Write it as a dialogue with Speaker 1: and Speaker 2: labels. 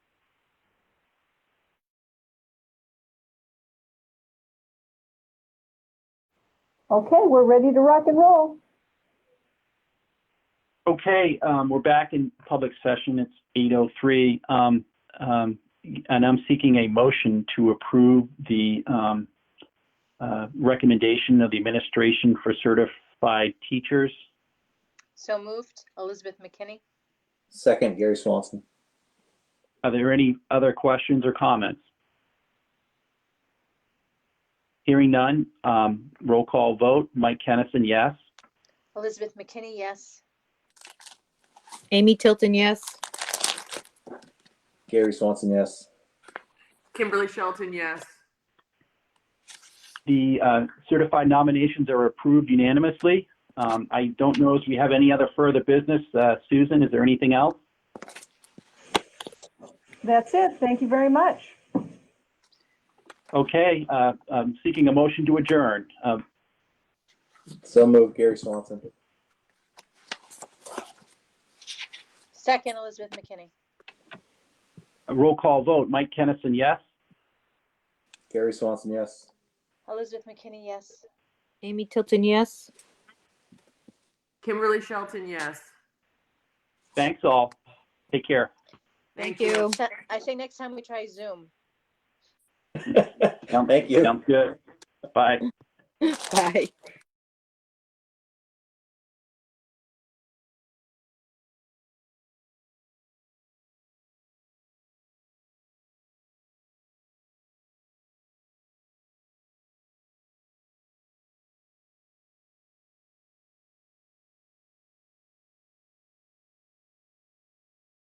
Speaker 1: Okay, we're ready to rock and roll.
Speaker 2: Okay, um, we're back in public session. It's 8:03. um, um, And I'm seeking a motion to approve the um, uh, recommendation of the administration for certified teachers.
Speaker 3: So moved, Elizabeth McKinney.
Speaker 4: Second, Gary Swanson.
Speaker 2: Are there any other questions or comments? Hearing none, um, roll call vote. Mike Kennison, yes.
Speaker 3: Elizabeth McKinney, yes.
Speaker 5: Amy Tilton, yes.
Speaker 4: Gary Swanson, yes.
Speaker 6: Kimberly Shelton, yes.
Speaker 2: The uh, certified nominations are approved unanimously. Um, I don't know if we have any other further business. Uh, Susan, is there anything else?
Speaker 1: That's it. Thank you very much.
Speaker 2: Okay, uh, I'm seeking a motion to adjourn. Uh,
Speaker 4: So moved, Gary Swanson.
Speaker 3: Second, Elizabeth McKinney.
Speaker 2: a roll call vote. Mike Kennison, yes.
Speaker 4: Gary Swanson, yes.
Speaker 3: Elizabeth McKinney, yes.
Speaker 5: Amy Tilton, yes.
Speaker 6: Kimberly Shelton, yes.
Speaker 2: Thanks all. Take care.
Speaker 6: Thank
Speaker 5: Thank
Speaker 6: you.
Speaker 5: you.
Speaker 3: So- I say next time we try Zoom.
Speaker 4: Thank you.
Speaker 2: Sounds good. Bye.
Speaker 5: Bye.